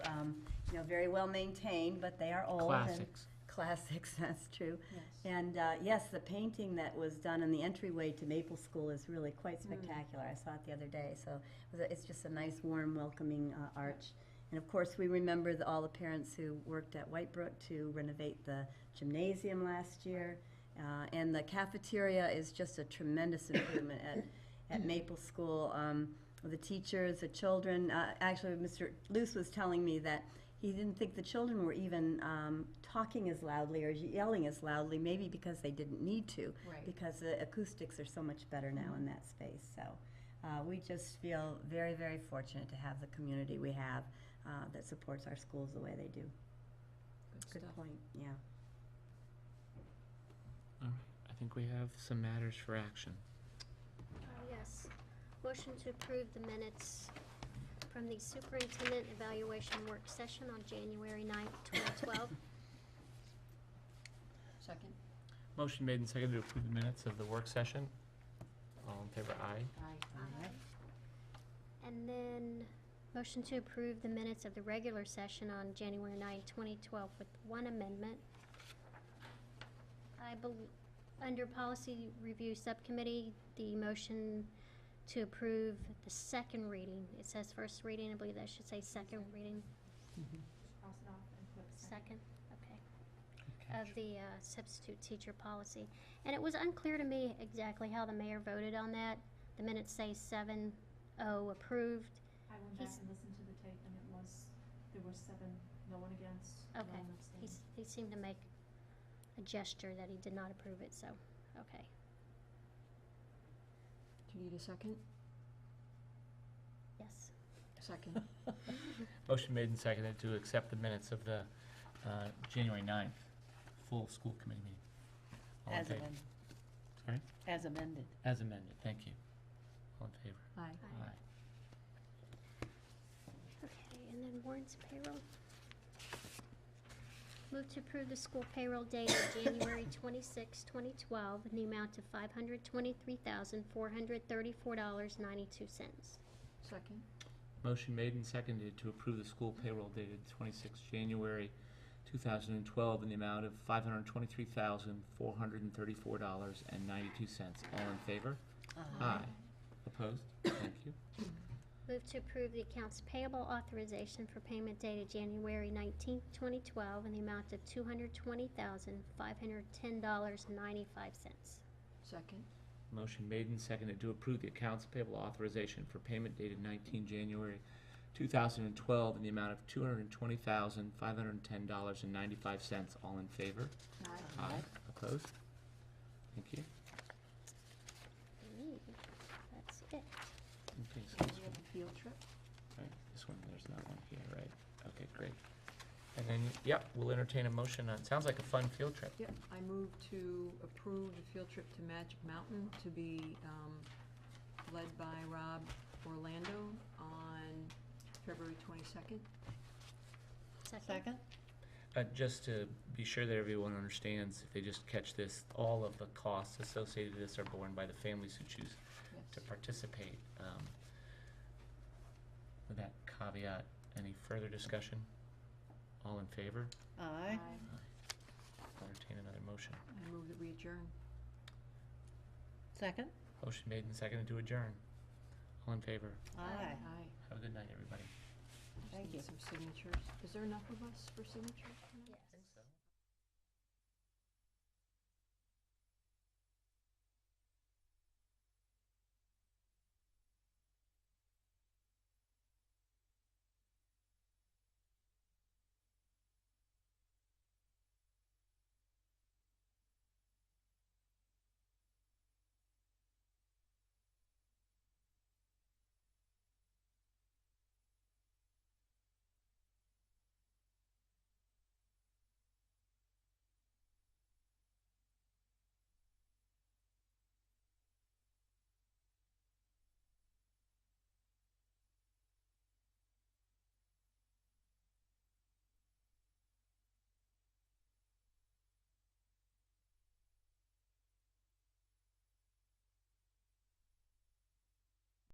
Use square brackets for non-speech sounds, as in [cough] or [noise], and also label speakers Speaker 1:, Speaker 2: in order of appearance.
Speaker 1: um, know, very well maintained, but they are old. and-
Speaker 2: Classics.
Speaker 1: Classics, [laughs] that's true.
Speaker 3: Yes.
Speaker 1: And uh, yes, the painting that was done in the entryway to Maple School is really quite spectacular. I saw it the other day, so it was a- it's just a nice, warm, welcoming uh, arch. And of course, we remember the, all the parents who worked at Whitebrook to renovate the gymnasium last year. Uh, and the cafeteria is just a tremendous improvement at, at Maple School. Um, the teachers, the children, uh, actually, Mr. Luce was telling me that he didn't think the children were even um, talking as loudly or yelling as loudly, maybe because they didn't need to,
Speaker 3: Right.
Speaker 1: because the acoustics are so much better now in that space. So uh, we just feel very, very fortunate to have the community we have uh, that supports our schools the way they do. Good
Speaker 3: stuff.
Speaker 1: point. Yeah.
Speaker 2: I think we have some matters for action.
Speaker 4: Uh, Yes. Motion to approve the minutes from the superintendent evaluation work session on January 9th, 2012.
Speaker 3: Second?
Speaker 2: Motion made and seconded to approve the minutes of the work session. All in favor, aye.
Speaker 3: Aye.
Speaker 1: [laughs] All right.
Speaker 4: And then, motion to approve the minutes of the regular session on January 9th, 2012 with one amendment. I believe, under policy review subcommittee, the motion to approve the second reading. It says first reading, I believe that should say second reading,
Speaker 5: cross it off and put second.
Speaker 4: second, okay. of the uh, substitute teacher policy. And it was unclear to me exactly how the mayor voted on that. The minutes say seven oh approved.
Speaker 5: I went back
Speaker 4: He's-
Speaker 5: and listened to the tape and it was, there were seven, no one against, no
Speaker 4: Okay.
Speaker 5: one abstaining.
Speaker 4: He's, he seemed to make a gesture that he did not approve it, so, okay.
Speaker 3: Do you need a second?
Speaker 4: Yes,
Speaker 3: [laughs] Second.
Speaker 2: Motion made and seconded to accept the minutes of the uh, January 9th full school committee meeting. All in
Speaker 6: As
Speaker 2: favor?
Speaker 6: amended.
Speaker 2: Sorry?
Speaker 6: As amended.
Speaker 2: As amended, thank you. All in favor?
Speaker 3: Aye.
Speaker 4: Aye. okay, and then warrants payroll. Move to approve the school payroll dated January twenty-six, twenty twelve, in the amount of five hundred twenty-three thousand, four hundred thirty-four dollars, ninety-two cents.
Speaker 3: Second?
Speaker 2: Motion made and seconded to approve the school payroll dated 26 January 2012 in the amount of $523,434.92. All in favor? Aye. Opposed? Thank you.
Speaker 4: Move to approve the accounts payable authorization for payment dated January nineteenth, twenty twelve, in the amount of two hundred twenty thousand, five hundred ten dollars and ninety-five cents.
Speaker 3: Second?
Speaker 2: Motion made and seconded to approve the accounts payable authorization for payment dated 19 January 2012 in the amount of $220,510.95. All in favor?
Speaker 3: Aye.
Speaker 2: Aye. Opposed? Thank you.
Speaker 4: That's it.
Speaker 2: Okay, so
Speaker 3: And
Speaker 2: this
Speaker 3: we
Speaker 2: one-
Speaker 3: have a field trip?
Speaker 2: Right, this one, there's not one here, right? Okay, great. And then, yep, we'll entertain a motion on, sounds like a fun field trip.
Speaker 3: Yep, I move to approve the field trip to Magic Mountain to be um, led by Rob Orlando on February 22nd.
Speaker 6: Second?
Speaker 2: Uh, just to be sure that everyone understands, if they just catch this, all of the costs associated with this are borne by the families who choose to
Speaker 3: Yes.
Speaker 2: participate. Um, With that caveat, any further discussion? All in favor?
Speaker 6: Aye.
Speaker 2: Entertain another motion.
Speaker 3: I move that we adjourn.
Speaker 6: Second?
Speaker 2: Motion made and seconded to adjourn. All in favor?
Speaker 6: Aye.
Speaker 3: Aye.
Speaker 2: Have a good night, everybody.
Speaker 3: I just
Speaker 6: Thank
Speaker 3: need
Speaker 6: you.
Speaker 3: Some signatures. Is there enough of us for signatures?
Speaker 4: Yes.